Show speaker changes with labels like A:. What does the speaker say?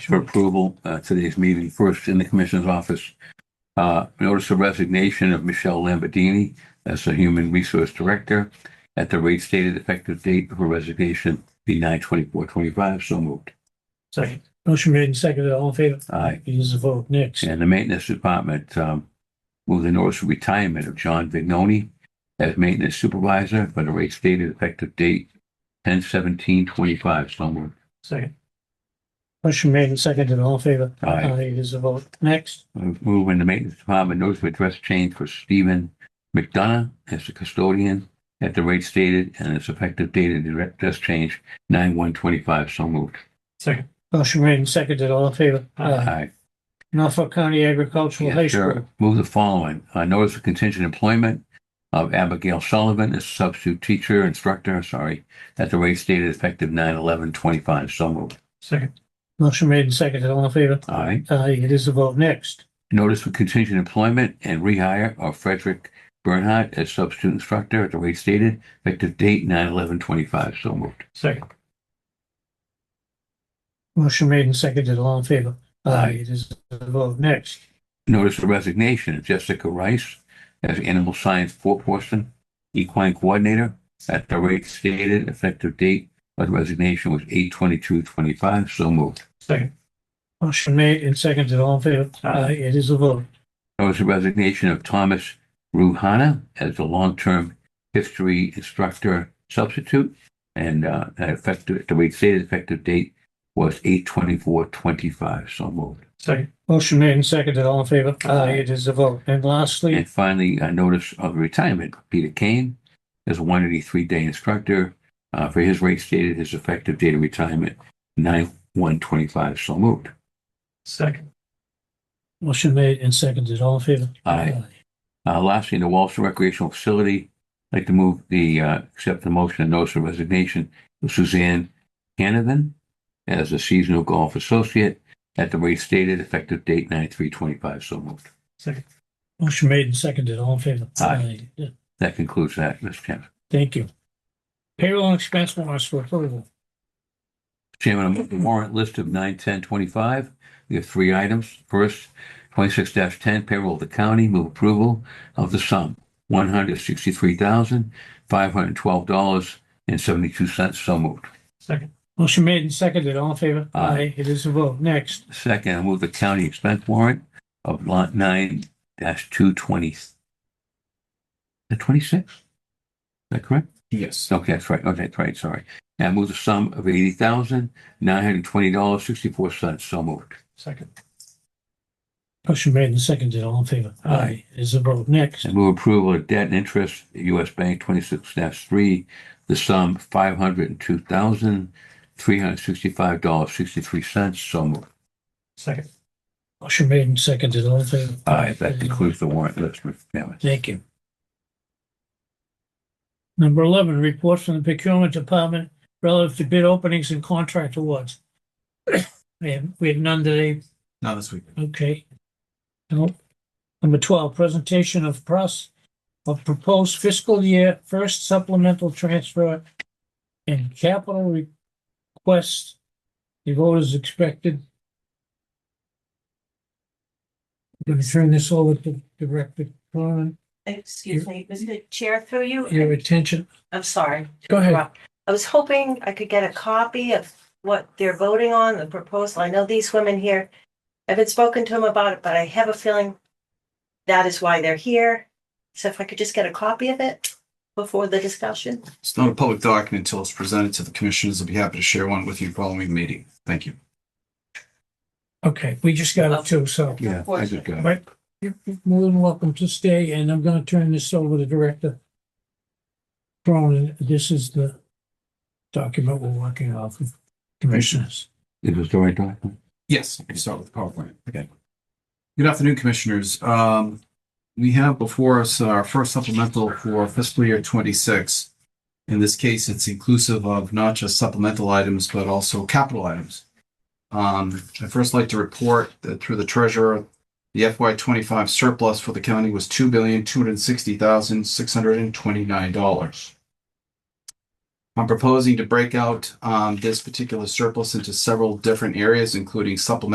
A: for approval uh, today's meeting, first in the commissioner's office. Uh, Notice of resignation of Michelle Lamborghini as the Human Resource Director at the rate stated effective date of her resignation be nine twenty-four twenty-five. So moved.
B: Second. Motion made and seconded. All in favor?
A: Aye.
B: It is a vote. Next.
A: And the Maintenance Department um, move the notice of retirement of John Vignoni as Maintenance Supervisor for the rate stated effective date ten seventeen twenty-five. So moved.
B: Second. Motion made and seconded. All in favor?
A: Aye.
B: It is a vote. Next.
A: Move in the maintenance department, notice of address change for Stephen McDonough as the custodian at the rate stated and its effective date of the address change, nine one twenty-five, so moved.
B: Second. Motion made and seconded. All in favor?
A: Aye.
B: Norfolk County Agricultural Uh, High
A: Yes,
B: School.
A: sir. Move the following, uh, notice of contingent employment of Abigail Sullivan as substitute teacher, instructor, sorry, at the rate stated effective nine eleven twenty-five, so moved.
B: Second. Motion made and seconded. All in favor?
A: Aye.
B: Aye. It is a vote. Next.
A: Notice for contingent employment and rehire of Frederick Bernhardt as substitute instructor at the rate stated, effective date nine eleven twenty-five. So moved.
B: Second. Motion made and seconded. All in favor?
A: Aye.
B: It is a vote. Next.
A: Notice the resignation of Jessica Rice as animal science foreperson, equine coordinator at the rate stated, effective date of resignation was eight twenty-two twenty-five. So moved.
B: Second. Motion made and seconded. All in favor?
A: Aye.
B: It is a vote.
A: Notice the resignation of Thomas Ruhana as the long-term history instructor substitute. And uh, that effective, the rate stated effective date was eight twenty-four twenty-five, so moved.
B: Second. Motion made and seconded. All in favor?
A: Aye.
B: It is a vote. And lastly,
A: And finally, a notice of retirement, Peter Kane as a one eighty-three day instructor. uh, For his rate stated, his effective date of retirement, nine one twenty-five, so moved.
B: Second. Motion made and seconded. All in favor?
A: Aye. Uh, lastly, the Walsall Recreational Facility, I'd like to move the, uh, accept the motion and notice of resignation of Suzanne Canavan as a seasonal golf associate at the rate stated, effective date nine three twenty-five, so moved.
B: Second. Motion made and seconded. All in favor?
A: Aye.
B: Yeah.
A: That concludes that, Mr. Chairman.
B: Thank you. Payroll and expense warrants for approval.
A: Chairman, I move the warrant list of nine ten twenty-five. We have three items. First, twenty-six ten payroll of the county, move approval of the sum, one hundred sixty-three thousand, five hundred twelve dollars and seventy-two cents, so moved.
B: Second. Motion made and seconded. All in favor?
A: Aye.
B: It is a vote. Next.
A: Second, I move the county expense warrant of lot nine dash two twenty. The twenty-six? Is that correct?
C: Yes.
A: Okay, that's right. Okay, that's right. Sorry. And I move the sum of eighty thousand, nine hundred twenty dollars, sixty-four cents. So moved.
B: Second. Motion made and seconded. All in favor?
A: Aye.
B: It is a vote. Next.
A: And move approval of debt and interest, U.S. Bank twenty-six dash three, the sum five hundred and two thousand, three hundred sixty-five dollars, sixty-three cents. So moved.
B: Second. Motion made and seconded. All in favor?
A: Aye, that
B: It is a vote.
A: concludes the warrant list, Mr. Chairman.
B: Thank you. Number eleven, report from the procurement department relative to bid openings and contract awards. We have, we have none today,
C: Not this week.
B: okay. No. Number twelve, presentation of pros, of proposed fiscal year first supplemental transfer and capital requests. The vote is expected. Going to turn this over to Director Cronin.
D: Excuse me, Mr. Chair, through
B: your
D: you,
B: attention.
D: I'm sorry.
B: Go ahead.
D: Rob. I was hoping I could get a copy of what they're voting on, the proposal. I know these women here. I haven't spoken to them about it, but I have a feeling that is why they're here. So if I could just get a copy of it before the discussion.
C: It's not a public document until it's presented to the commissioners. I'll be happy to share one with you following the meeting. Thank you.
B: Okay, we just got it too, so
A: Yeah, I just got it.
B: Right. you're you're more than welcome to stay, and I'm gonna turn this over to Director Cronin. This is the document we're working off of, commissioners.
A: Is this the right document?
C: Yes, I can start with the PowerPoint. Okay. Good afternoon, Commissioners. Um, we have before us our first supplemental for fiscal year twenty-six. In this case, it's inclusive of not just supplemental items, but also capital items. Um, I'd first like to report that through the treasurer, the FY twenty-five surplus for the county was two billion, two hundred and sixty thousand, six hundred and twenty-nine dollars. I'm proposing to break out um, this particular surplus into several different areas, including supplemental